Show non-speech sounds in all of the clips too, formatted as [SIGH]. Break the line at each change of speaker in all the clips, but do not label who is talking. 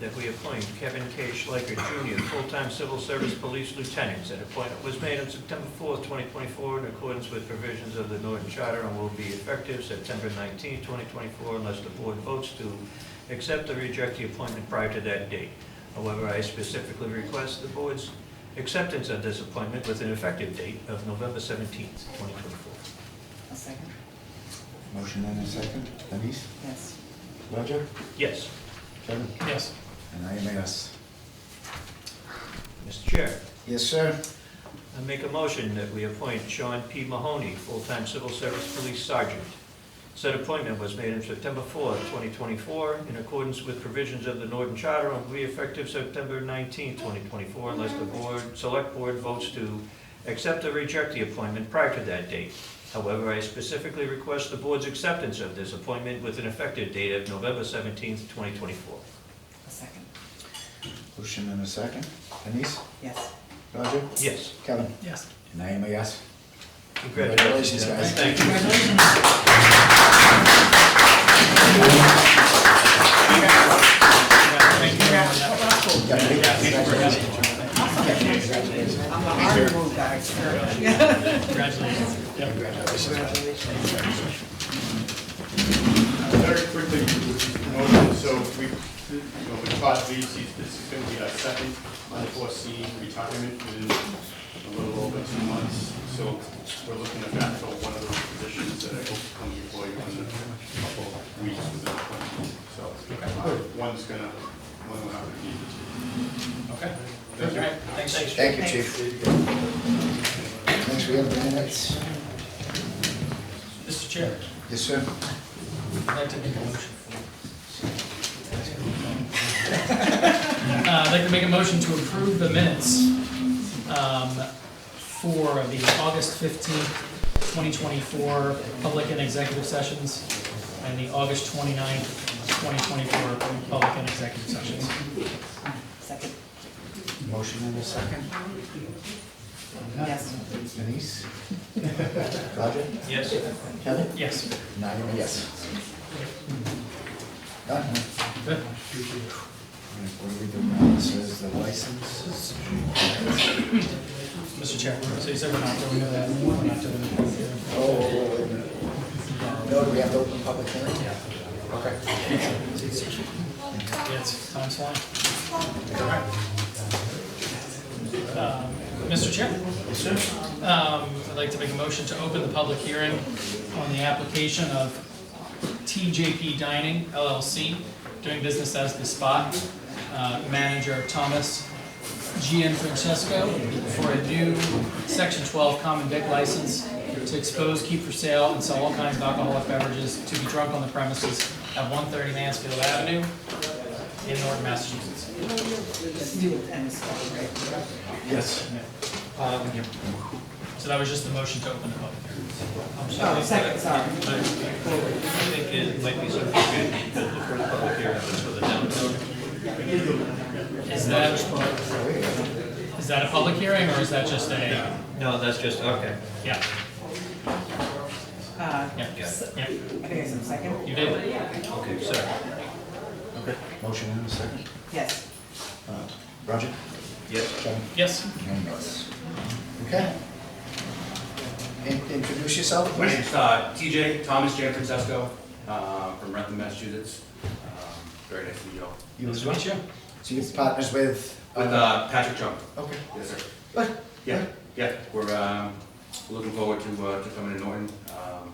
that we appoint Kevin K. Schleicher Jr., full-time civil service police lieutenant. That appointment was made on September 4th, 2024, in accordance with provisions of the Norton Charter and will be effective September 19th, 2024, unless the board votes to accept or reject the appointment prior to that date. However, I specifically request the board's acceptance of this appointment with an effective date of November 17th, 2024.
A second?
Motion and a second. Denise?
Yes.
Roger?
Yes,
Kevin?
Yes.
And I am a yes.
Mr. Chair.
Yes, sir.
I make a motion that we appoint Sean P. Mahoney, full-time civil service police sergeant. Said appointment was made on September 4th, 2024, in accordance with provisions of the Norton Charter and will be effective September 19th, 2024, unless the board, select board votes to accept or reject the appointment prior to that date. However, I specifically request the board's acceptance of this appointment with an effective date of November 17th, 2024.
A second?
Motion and a second. Denise?
Yes.
Roger?
Yes.
Kevin?
Yes.
And I am a yes.
Congratulations,
Congratulations, guys.
Thank you.
Congratulations. Congrats. Well, that's cool. I'm a hard move guy.
Congratulations.
[LAUGHS]
Yep.
Very quickly, motion, so we, you know, we taught these, these- this is gonna be our second unforeseen retirement within a little over two months. So we're looking to backfill one of those positions that I hope to come before you in a couple of weeks with the appointment. So uh, one's gonna, one will have to be.
Okay.
Thank you.
Thanks.
Thank you, chief. Next, we have the minutes.
Mr. Chair,
Yes, sir.
I'd like to make a motion. Uh, I'd like to make a motion to approve the minutes um, for the August fifteenth, twenty twenty-four public and executive sessions and the August twenty-ninth, twenty twenty-four public and executive sessions.
Second?
Motion and a second.
Uh-huh.
Yes.
Denise? Roger?
Yes.
Kevin?
Yes.
And I am a yes. Done, huh?
Good.
What do we do now? This is the license.
Mr. Chair, so you said we're not doing that, we're not doing that.
Oh, oh, wait a minute. No, do we have to open public hearing?
Yeah.
Okay.
Yeah, it's time's flying. Uh, Mr. Chair? Yes, sir. Um, I'd like to make a motion to open the public hearing on the application of TJP Dining LLC, doing business as The Spot, uh, manager Thomas GN Francesco for a new Section 12 Common Vic license to expose, keep for sale, and sell all kinds of alcoholic beverages to be drunk on the premises at 130 Mansfield Avenue in Norton, Massachusetts.
Just do it and it's all right.
Yes.
Uh, So that was just the motion to open the public hearing. I'm
Oh,
sorry.
second, sorry.
I think it might be something good for the public hearing, that's for the downtown.
Is that, is that a public hearing or is that just a,
No, that's just, okay.
yeah,
Uh,
yeah,
Yeah.
yeah,
I think it's a second?
you did?
Okay, sorry.
Okay. Motion and a second.
Yes.
Uh, Roger?
Yes.
Kevin?
Yes,
And yes. Okay. In- Introduce yourself,
My
please.
name's uh, TJ, Thomas J. Francesco, uh, from Rentham, Massachusetts. Um, Very nice to meet you all.
You
nice
as
to
well?
meet you.
So you're partners with?
With uh, Patrick Chung.
Okay.
Yes, sir.
What?
Yeah, yeah, we're um, looking forward to uh, to coming to Norton. Um,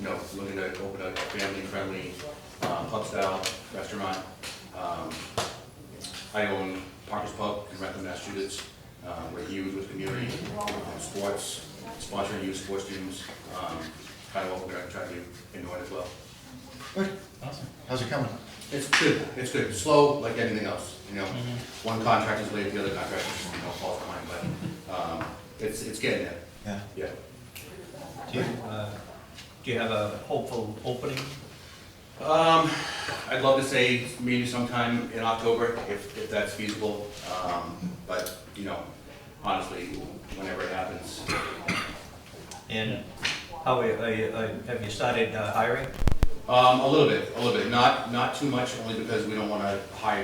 You know, looking to open a family-friendly uh, pub-style restaurant. Um, I own Parker's Pub in Rentham, Massachusetts. Uh, We're huge with community, uh, sports, sponsoring youth sports teams. Um, Kind of what we're going to try to do in Norton as well.
What?
Awesome.
How's it coming?
It's good, it's good, slow like anything else, you know, one contract is late, the other contract is, you know, falls behind, but, um, it's, it's getting there,
Yeah.
yeah.
Do you, uh, do you have a hopeful opening?
Um, I'd love to say maybe sometime in October, if, if that's feasible, um, but, you know, honestly, whenever it happens,
And how, are- are you- uh, have you started uh, hiring?
um, a little bit, a little bit, not, not too much, only because we don't wanna hire